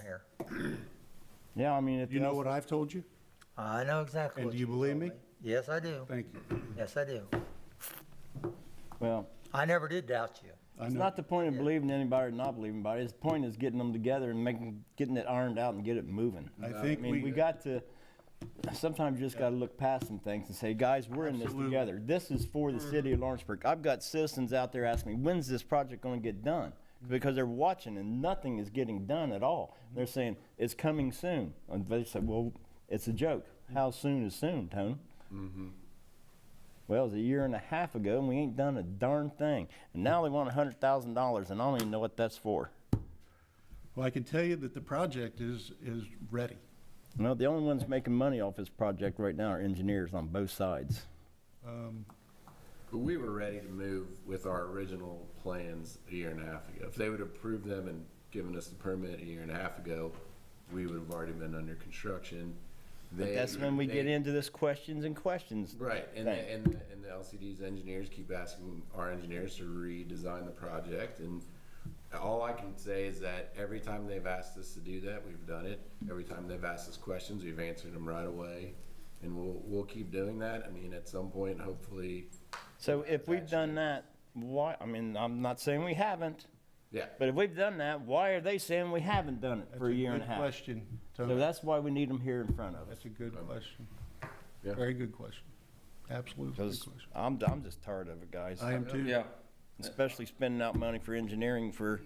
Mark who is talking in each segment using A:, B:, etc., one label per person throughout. A: here.
B: Yeah, I mean, it
C: You know
B: does,
C: what I've told you?
A: I know exactly.
C: And
A: what
C: do you
A: told
C: believe me?
A: Yes, I do.
C: Thank you.
A: Yes, I do.
B: well,
A: I never did doubt you.
C: I
B: it's
C: know,
B: not the point of believing anybody or not believing anybody. It's the point is getting them together and making, getting it ironed out and get it moving.
C: I think
B: I mean, we
C: we,
B: got to, sometimes you just got to look past some things and say, guys, we're in this together. This is for the
C: Mm-hmm.
B: city of Lawrenceburg. I've got citizens out there asking me, when's this project going to get done?
C: Mm-hmm.
B: Because they're watching and nothing is getting done at all. They're saying, it's coming soon. And they say, well, it's a joke.
C: Mm-hmm.
B: How soon is soon, Tony? Well, it was a year and a half ago and we ain't done a darn thing. And
C: Mm-hmm.
B: now they want $100,000 and I don't even know what that's for.
C: well, I can tell you that the project is, is ready.
B: No, the only ones making money off this project right now are engineers on both sides.
C: Um,
D: But we were ready to move with our original plans a year and a half ago. If they would have approved them and given us the permit a year and a half ago, we would have already been under construction. They-
B: That's when we get
D: they-
B: into this questions and questions.
D: Right, and, the-
B: thing.
D: and, the- and the LCD's engineers keep asking our engineers to redesign the project, and all I can say is that every time they've asked us to do that, we've done it. Every time they've asked us questions, we've answered them right away, and we'll, we'll keep doing that. I mean, at some point, hopefully,
B: So if we've done that, why, I mean, I'm not saying we haven't,
D: yeah.
B: but if we've done that, why are they saying we haven't done it
C: That's
B: for a year and a
C: Good
B: half?
C: question,
B: So
C: Tony.
B: that's why we need them here in front of us.
C: That's a good question.
D: Yeah.
C: Very good question. Absolutely good
B: Because
C: question.
B: I'm, I'm just tired of it, guys.
C: I am too.
E: Yeah,
B: Especially spending out money for engineering for,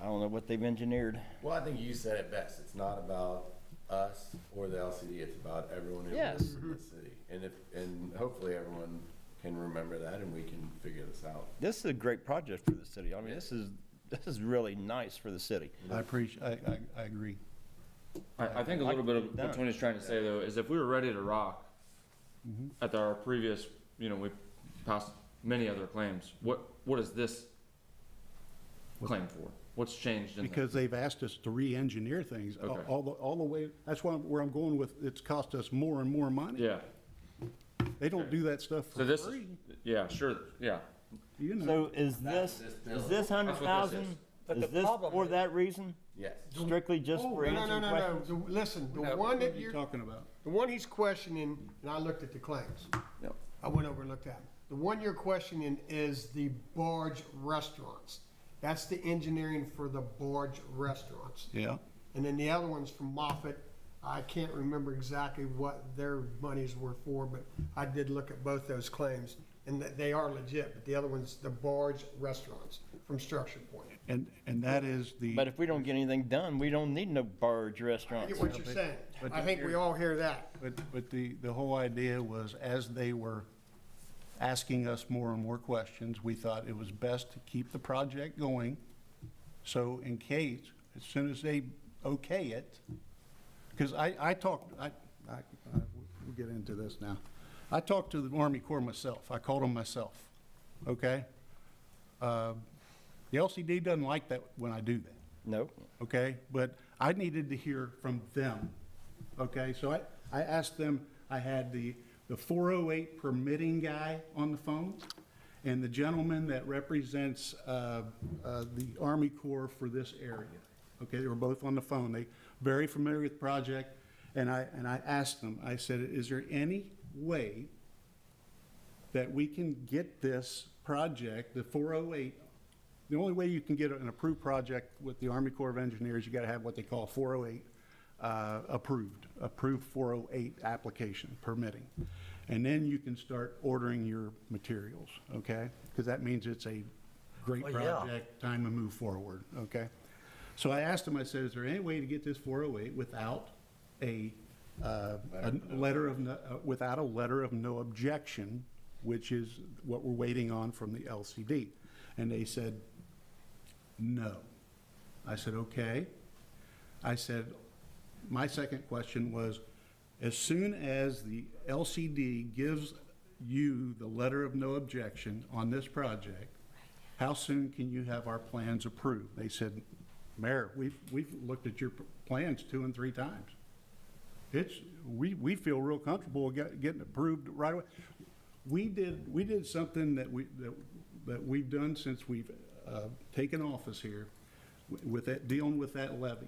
B: I don't know what they've engineered.
D: Well, I think you said it best. It's not about us or the LCD. It's about everyone who
B: Yes.
D: lives in the city. And if, and hopefully everyone can remember that and we can figure this out.
B: This is a great project for the city. I mean, this is, this is really nice for the city.
C: I appreciate, I, I, I agree.
E: I, I think a little bit of
B: Done.
E: what Tony's trying to say though is if we were ready to rock
C: Mm-hmm.
E: at our previous, you know, we passed many other claims. What what is this claim for? What's changed in
C: Because they've asked us to re-engineer things all-
E: Okay.
C: all the, all the way, that's why, where I'm going with, it's cost us more and more
E: the,
C: money.
E: Yeah.
C: They don't do that stuff
E: So
C: for
E: this
C: free,
E: yeah, sure. Yeah.
C: you
B: So
C: know.
B: is this,
D: this bill.
B: is this hundred thousand,
A: But the
B: is this
A: problem
B: for
A: is-
B: that reason?
D: Yes.
B: Strictly just
F: Oh,
B: for
F: no, no, no,
B: answering
F: no, no.
B: questions?
F: The- Listen, the
C: What
F: one
C: are
F: that
C: you
F: you're,
C: Talking about.
F: the one he's questioning, and I looked at the claims.
E: Yep.
F: I went over and looked at them. The one you're questioning is the barge restaurants. That's the engineering for the barge restaurants.
C: Yeah.
F: And then the other one's from Moffett. I can't remember exactly what their monies were for, but I did look at both those claims. And that they are legit, but the other one's the barge restaurants from structure point.
C: And, and that is the.
B: But if we don't get anything done, we don't need no barge
F: I
B: restaurants.
F: get what you're saying.
C: but
F: I think we all hear that.
C: But, but the, the whole idea was, as they were asking us more and more questions, we thought it was best to keep the project going. So in case, as soon as they okay it, because I, I talked, I, I, I- we'll get into this now. I talked to the Army Corps myself. I called them myself, okay? Uh, The LCD doesn't like that when I do that
B: No,
C: okay? But I needed to hear from them, okay? So I, I asked them, I had the, the 408 permitting guy on the phone, and the gentleman that represents uh, uh, the Army Corps for this area, okay? They were both on the phone, they very familiar with the project, and I, and I asked them, I said, is there any way that we can get this project, the 408, the only way you can get an approved project with the Army Corps of Engineers, you got to have what they call 408 uh, approved, approved 408 application permitting. And then you can start ordering your materials, okay? Because that means it's a great
A: Well, yeah.
C: project, time to move forward, okay? So I asked him, I said, is there any way to get this 408 without a, uh, a letter of, no- uh, without a letter of no objection, which is what we're waiting on from the LCD? And they said, no. I said, okay. I said, my second question was, as soon as the LCD gives you the letter of no objection on this project, how soon can you have our plans approved? They said, Mayor, we've, we've looked at your p- plans two and three times. It's, we, we feel real comfortable get- getting approved right away. We did, we did something that we, that, that we've done since we've, uh, taken office here with that, dealing with that levy.